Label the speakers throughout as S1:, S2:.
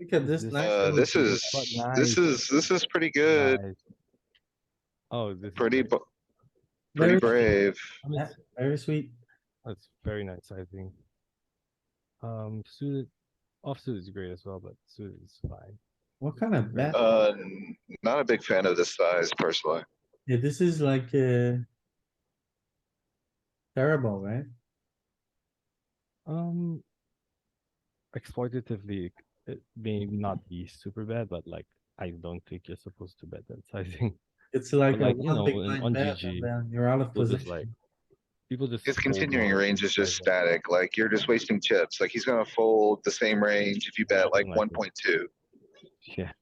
S1: Look at this.
S2: This-
S1: nice
S3: Uh,
S1: little
S3: this
S1: thing.
S3: is,
S2: but
S3: this
S2: nice.
S3: is, this is pretty good,
S2: Nice. Oh, this. is
S3: pretty,
S2: nice.
S3: bu- pretty
S1: Very-
S3: brave.
S1: Yeah, Very sweet.
S2: That's very nice, I think. Um, suited, offsuit is great as well, but suited is fine.
S1: What kind of bet?
S3: Uh, n- not a big fan of this size personally.
S1: Yeah, this is like, uh. Terrible, right?
S2: Um, exploitatively, it may not be super bad, but like I don't think you're supposed to bet that sizing.
S1: It's like a
S2: like, you
S1: one
S2: know,
S1: big
S2: in-
S1: blind
S2: on
S1: bet,
S2: GG,
S1: and then you're out of
S2: People just like,
S1: position.
S2: people just.
S3: His
S2: fold
S3: continuing
S2: now
S3: range is just
S2: sizing.
S3: static, like you're just wasting chips, like he's gonna fold the same range if you bet like
S2: Something like
S3: one
S2: that.
S3: point two.
S2: Yeah,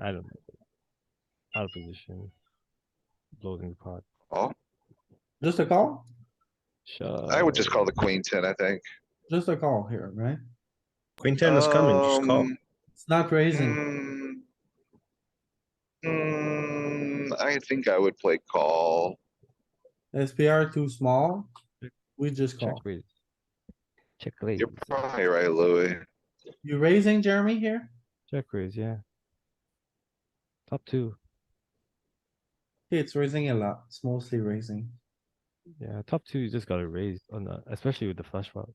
S2: I don't know. Out of position. Bloating the pot.
S3: Oh,
S1: Just a call?
S3: I would just call the
S2: Shove.
S3: queen ten, I think.
S1: Just a call here, right?
S4: Queen ten is coming, just call.
S3: Um,
S1: It's not raising.
S3: mm, mm, I think I would play call.
S1: SPR too small. We just
S2: Check
S1: call.
S2: raise. Check raise.
S3: You're probably right, Louis.
S1: You raising Jeremy here?
S2: Check raise, yeah. Top two,
S1: It's raising a lot. It's mostly raising.
S2: yeah, top two, you just gotta raise on the, especially with the flush pot.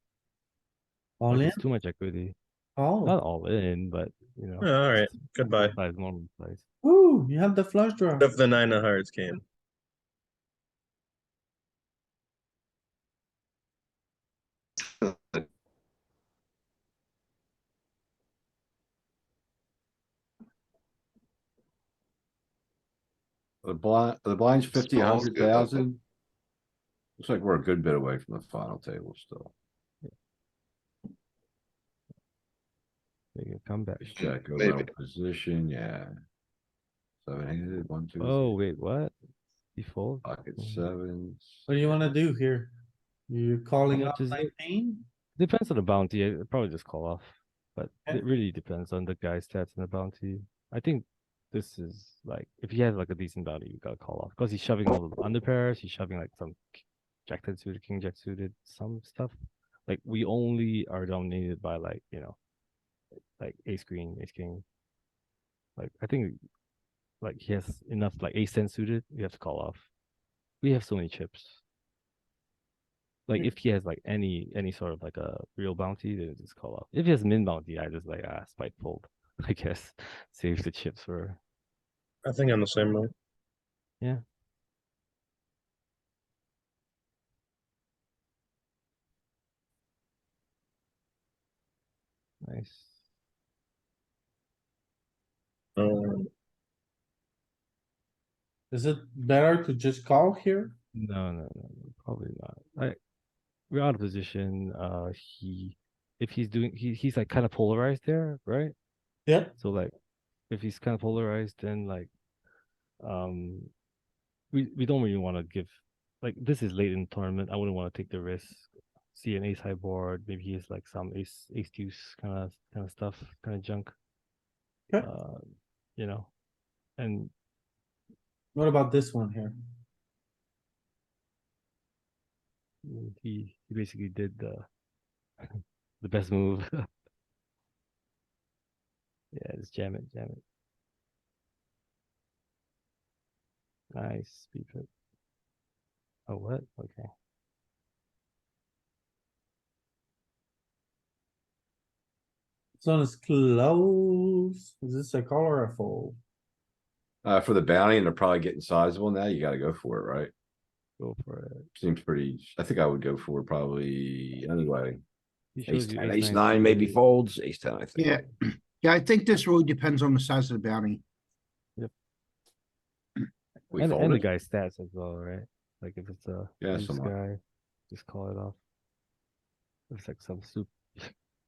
S1: All in?
S2: It's too much equity. Not
S1: Oh,
S2: all in, but you know.
S4: Alright, Oh, goodbye.
S2: Size normal size.
S1: ooh, you have the flush draw.
S4: Of the nine of hearts game.
S5: The blind, the blind's fifty,
S3: Small's
S5: hundred
S3: good, I think.
S5: thousand. Looks like we're a good bit away from the final table still.
S2: Make a comeback.
S6: Mm,
S5: Just check,
S3: Maybe.
S5: overall position, yeah. Seven handed, one, two,
S2: Oh,
S5: three,
S2: wait, what? You fold?
S5: pocket
S2: Mm.
S5: sevens.
S1: What do you wanna do here? You calling
S2: How
S1: up
S2: much is it?
S1: nineteen?
S2: Depends on the bounty, I'd probably just call off, but
S1: Okay.
S2: it really depends on the guy's stats and the bounty. I think this is like, if he has like a decent bounty, you gotta call off, cause he's shoving all the under pairs, he's shoving like some k- jack ten suited, king jack suited, some stuff. Like, we only are dominated by like, you know, like ace queen, ace king. Like, I think, like, he has enough, like ace ten suited, we have to call off. We have so many chips. Like
S1: Hmm.
S2: if he has like any any sort of like a real bounty, then just call off. If he has min bounty, I just like ah spite fold. I guess save the chips for
S4: I think I'm the same way.
S2: nice.
S4: Um,
S1: Is it better to just call here?
S2: No, no, no, no, probably not. Like we're out of position. Uh, he if he's doing he he's like kind of polarized there, right?
S1: Yeah.
S2: So like if he's kind of polarized, then like um we we don't really want to give like this is late in the tournament. I wouldn't want to take the risk. See an ace high board, maybe he has like some ace ace deuce kind of kind of stuff, kind of junk.
S1: Okay.
S2: Uh, you know, and
S1: What about this one here?
S2: mm, he he basically did the the best move. yeah, just jam it, jam it. Nice speed trip. Oh what? Okay.
S1: This one is close. Is this a call or a fold?
S5: Uh, for the bounty and they're probably getting sizable now, you gotta go for it, right?
S2: Go for it.
S5: Seems pretty, I think I would go for it probably anyway.
S2: He
S5: Ace
S2: shows you
S5: ten, ace
S2: suited,
S5: nine maybe
S2: right?
S5: folds, ace ten, I think.
S6: Yeah, yeah, I think this really depends on the size of the bounty.
S5: We
S2: and, and the
S5: folded,
S2: guy's stats as well, right? Like if it's a
S5: yeah,
S2: loose
S5: somewhat.
S2: guy, just call it off. If it's like some soup.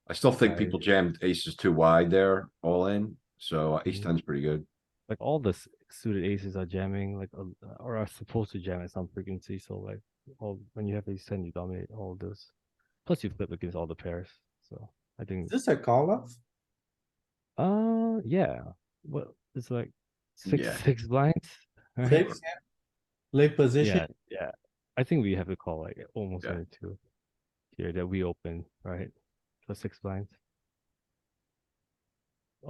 S5: I still think people jammed aces too wide there, all in, so uh, ace
S2: Mhm.
S5: ten's pretty good.
S2: Like all the s- suited aces are jamming, like uh, or are supposed to jam at some frequency. So like, all when you have ace ten, you dominate all of those. Plus, you flip against all the pairs. So I think,
S1: Is this a call off?
S2: uh, yeah. Well, it's like six
S5: Yeah.
S2: six blinds. right?
S1: Six? Late
S2: Yeah,
S1: position?
S2: yeah. I think we have to call like almost
S5: Yeah.
S2: any two here that we open, right? For six blinds.